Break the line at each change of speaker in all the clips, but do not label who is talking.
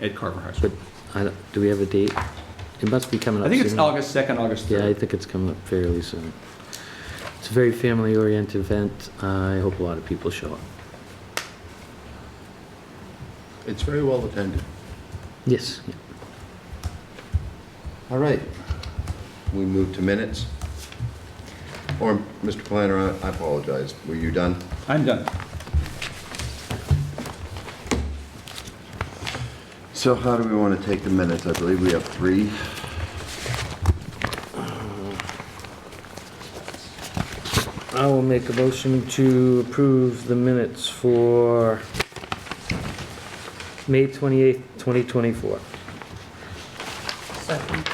at Carver High
But
School.
I don't- do we have a date? It must be coming up
I think it's
soon.
August 2nd, August
Yeah, I
3rd.
think it's coming up fairly soon. It's a very family-oriented event. I hope a lot of people show up.
It's very well attended.
Yes. yeah.
All right. We move to minutes. Or, Mr. Planner, I- I apologize. Were you done?
I'm done.
So how do we want to take the minutes? I believe we have three.
I will make a motion to approve the minutes for May 28th, 2024.
Second.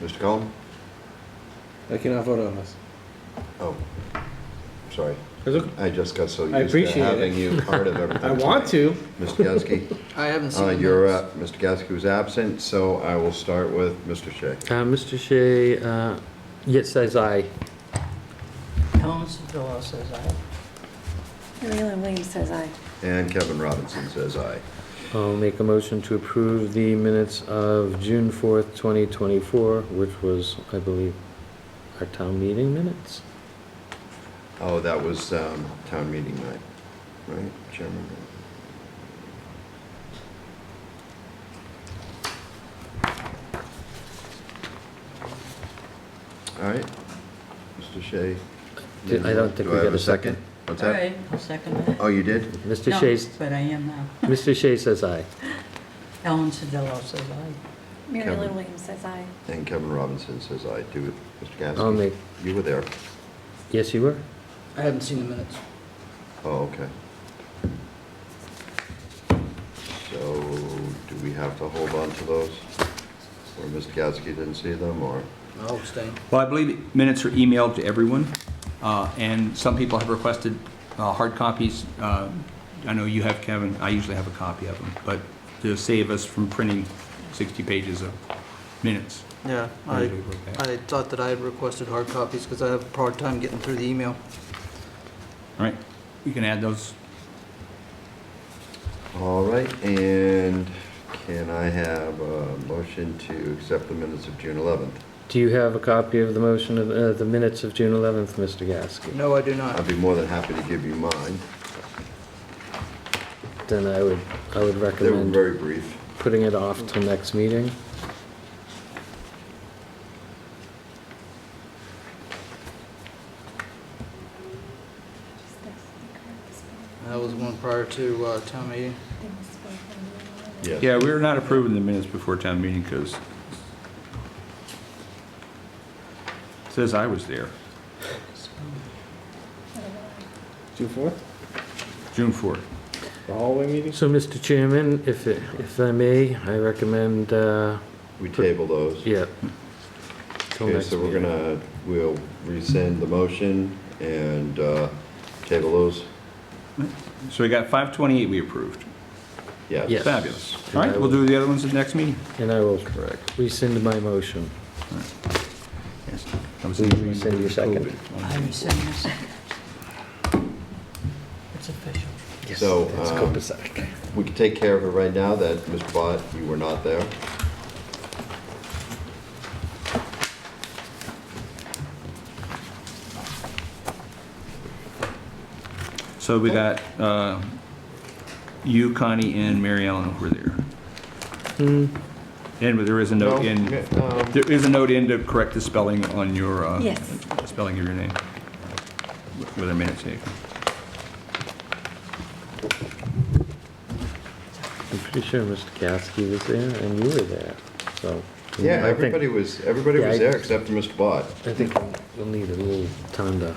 Mr. Cullen?
I cannot vote on this.
Oh, sorry.
It's okay.
I just got so
I
used to
appreciate it.
having you part of everything.
I want to.
Mr. Gasky?
I haven't seen
Uh,
the
you're,
minutes.
uh, Mr. Gasky was absent, so I will start with Mr. Shea.
Uh, Mr. Shea, uh, yes, says I.
Helms Villa says aye.
Leland Williams says aye.
And Kevin Robinson says aye.
I'll make a motion to approve the minutes of June 4th, 2024, which was, I believe, our town meeting minutes?
Oh, that was um, town meeting night, right, Chairman? All right, Mr. Shea.
Did- I don't think
do
we
I have
got a second.
What's
All
that?
right, I'll second that.
Oh, you did?
Mr.
No,
Shea,
But I am now.
Mr. Shea says aye.
Ellen Sedillo says aye.
Mary
Kevin.
Lynn Williams says aye.
And Kevin Robinson says aye, do, Mr. Gasky?
I'll make-
You were there.
Yes, you were?
I haven't seen the minutes.
Oh, okay. So, do we have to hold on to those? Or Mr. Gasky didn't see them, or?
I'll abstain.
Well, I believe minutes are emailed to everyone, uh, and some people have requested uh, hard copies. Uh, I know you have, Kevin, I usually have a copy of them, but to save us from printing 60 pages of minutes.
Yeah, I, I thought that I had requested hard copies because I have a hard time getting through the email.
All right, you can add those.
All right, and can I have a motion to accept the minutes of June 11th?
Do you have a copy of the motion of, uh, the minutes of June 11th, Mr. Gasky?
No, I do not.
I'd be more than happy to give you mine.
Then I would, I would
They were
recommend
very brief.
putting it off till next meeting.
That was one prior to uh, town meeting.
Yes.
Yeah, we were not approving the minutes before town meeting because says I was there,
June fourth,
June 4th.
the hallway meeting.
So, Mr. Chairman, if, it- if I may, I recommend, uh,
We table those.
yeah. till
Okay,
next
so we're
meeting.
gonna, we'll rescind the motion and uh, table those?
So we got 528 we approved.
Yes.
Yes.
Fabulous. All right, we'll do the other ones at the next meeting.
And I will
Correct.
rescind my motion.
Yes. That was
Will
the-
you rescind your second?
I rescind my second. It's official.
So, um, we can take care of it right now that, Mr. Bott, you were not there.
So we got uh, you, Connie, and Mary Ellen were there.
Hmm,
And there is a note in,
Um,
there is a note in to correct the spelling on your, uh,
Yes.
spelling of your name with a minute taken.
I'm pretty sure Mr. Gasky was there and you were there, so.
Yeah,
I think-
everybody was, everybody
Yeah,
was
I-
there except for Mr. Bott.
I think we'll need a little time to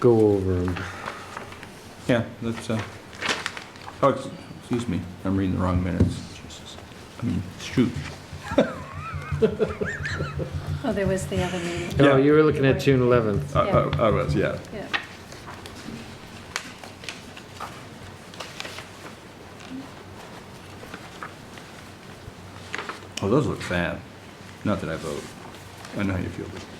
go over them.
Yeah, that's, uh, oh, ex- excuse me, I'm reading the wrong minutes. Jesus. I mean, shoot.
Oh, there was the other meeting.
No, Oh, you were looking at June 11th.
I- I Uh, I was, yeah.
Yeah.
Oh, those look fab. Not that I vote. I know how you feel. but-